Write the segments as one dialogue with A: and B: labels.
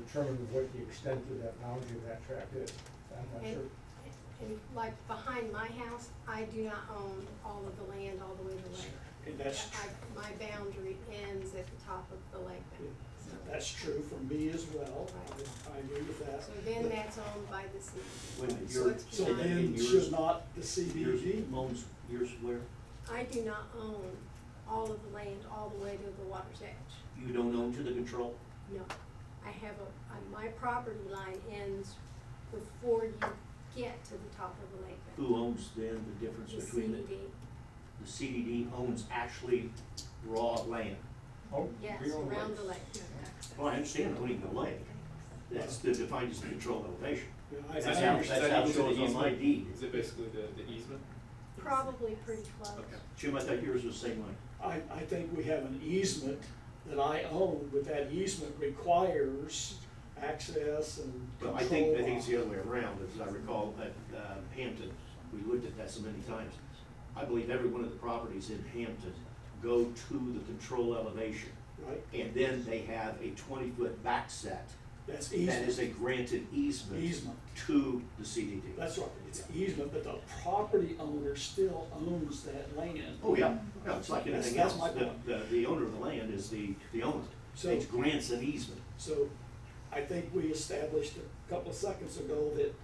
A: determine what the extent of that boundary of that tract is. I'm not
B: And-
A: sure.
B: And like behind my house, I do not own all of the land all the way to the lake.
C: And that's, tr-
B: I- My boundary ends at the top of the lake bank, so,
C: that's true for me as well.
B: Right.
C: I agree with that.
B: so then that's owned by the city.
D: When
B: So
D: you're
B: it's
C: So
B: not-
C: then
D: saying
C: should
D: yours,
C: not the CBD,
D: yours owns, yours where,
B: I do not own all of the land all the way to the water's edge.
D: you don't own to the control?
B: No, I have a, I- my property line ends before you get to the top of the lake. bank.
D: Who owns then the difference
B: The
D: between
B: CDD,
D: The CDD owns actually raw land.
A: Oh,
B: yes,
A: we own
B: around the
A: lakes.
B: lake.
D: Well, I understand owning the lake, that's the- defined as the control elevation.
C: you know, I-
D: That's
C: I
D: how,
C: understand.
D: that's how it shows on my deed.
E: Is it basically the, the easement?
B: Probably pretty close.
E: Okay.
D: Jim, I thought yours was the same way.
C: I, I think we have an easement that I own, but that easement requires access and
D: Well,
C: control.
D: I think, I think it's the other way around, as I recall, at uh, Hampton, we looked at that so many times. I believe every one of the properties in Hampton go to the control elevation,
C: Right,
D: and then they have a twenty-foot back set
C: that's
D: that is a
C: easement,
D: granted easement
C: easement,
D: to the CDD.
C: that's right, it's easement, but the property owner still owns that land.
D: Oh, yeah, no, it's like anything
C: That's- that's
D: else,
C: my
D: the,
C: point.
D: the, the owner of the land is the, the owner.
C: So-
D: It grants an easement,
C: So I think we established a couple of seconds ago that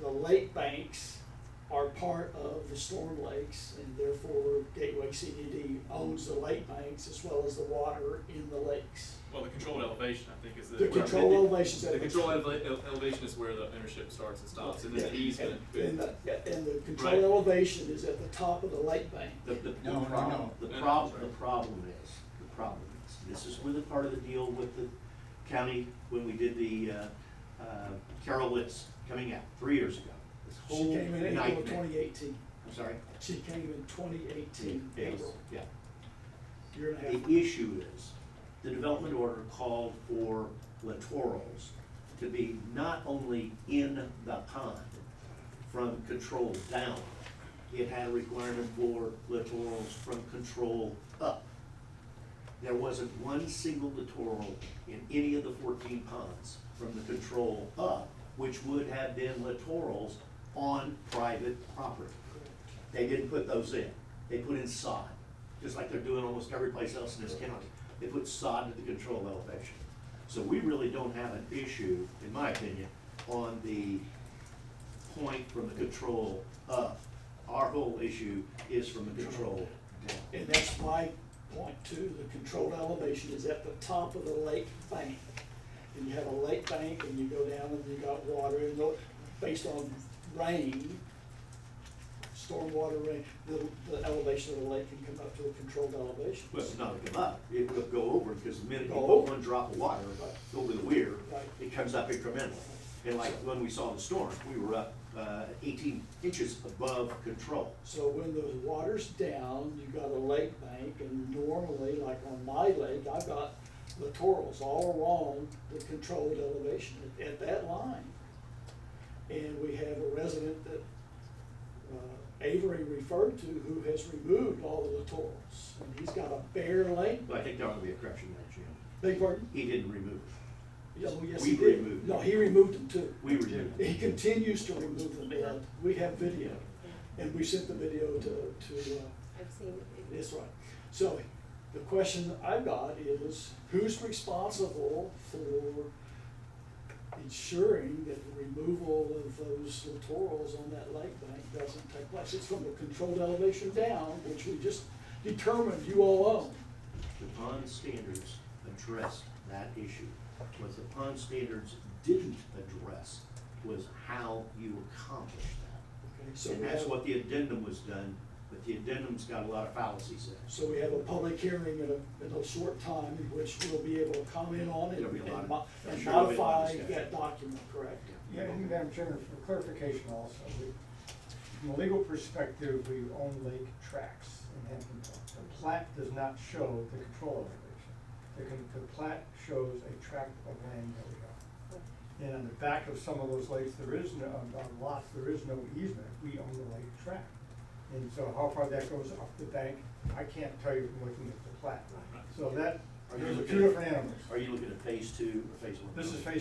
C: the lake banks are part of the storm lakes and therefore Gateway CDD owns the lake banks as well as the water in the lakes.
E: Well, the controlled elevation, I think, is the.
C: The
E: where-
C: control elevation's at.
E: The control eleva- ele- elevation is where the ownership starts and stops, and then the easement.
C: And the, and the
E: Right.
C: control elevation is at the top of the lake bank.
D: the, the, the
A: No, no,
D: problem,
A: no.
D: the
E: No, no,
D: problem,
E: sorry.
D: the problem is, the problem is, this is where the part of the deal with the county, when we did the, uh, uh, Carol Litz coming out, three years ago. This
C: She
D: whole
C: came in April
D: nightmare,
C: twenty eighteen.
D: I'm sorry?
C: She came in twenty eighteen,
D: Yes,
C: April,
D: Yeah.
C: year and a half.
D: The issue is, the development order called for littorals to be not only in the pond from control down, it had a requirement for littorals from control up. There wasn't one single littoral in any of the fourteen ponds from the control up, which would have been littorals on private property. They didn't put those in. They put in sod, just like they're doing almost every place else in this county. They put sod to the control elevation. So we really don't have an issue, in my opinion, on the point from the control up. Our whole issue is from the control down.
C: And that's my point too, the controlled elevation is at the top of the lake bank. And you have a lake bank and you go down and you got water and tho- based on rain, stormwater rain, the, the elevation of the lake can come up to a controlled elevation.
D: Well, it's not gonna come up. It will go over, because the minute you
C: Go
D: put
C: over.
D: one drop of water over the weir,
C: Right.
D: it comes up incrementally. And like when we saw the storm, we were up uh, eighteen inches above control.
C: So when the water's down, you got a lake bank and normally, like on my lake, I've got littorals all along the controlled elevation at, at that line. And we have a resident that uh, Avery referred to who has removed all the littorals. And he's got a bare lake,
D: But I think there ought to be a correction there, Jim.
C: big pardon?
D: He didn't remove it.
C: Oh, yes,
D: We
C: he did.
D: removed
C: No,
D: it.
C: he removed them too.
D: We removed
C: He
D: it.
C: continues to remove them, Ed. We have video. And we sent the video to, to uh,
B: I've seen it.
C: That's right. So the question I've got is, who's responsible for ensuring that the removal of those littorals on that lake bank doesn't take place? It's from the controlled elevation down, which we just determined you all own.
D: The pond standards addressed that issue. What the pond standards didn't address was how you accomplish that.
C: Okay, so
D: And
C: we
D: that's
C: have,
D: what the addendum was done, but the addendum's got a lot of fallacies in it.
C: so we have a public hearing in a, in a short time, in which we'll be able to comment on it
D: There'll be a lot
C: and
D: of-
C: mo-
D: I'm
C: and
D: sure there'll be a lot of
C: modify
D: discussion.
C: that document, correct?
A: Yeah, and Madam Chairman, for clarification also, we- from a legal perspective, we own lake tracts in Hampton Court. The plat does not show the control elevation. The, con- the plat shows a tract of land that we own. And on the back of some of those lakes, there is no, on- on lots, there is no easement, we own the lake tract. And so how far that goes off the bank, I can't tell you from looking at the plat. So that,
D: Are you
A: those are
D: looking
A: two
D: at-
A: different animals.
D: Are you looking at phase two or phase one?
A: This is phase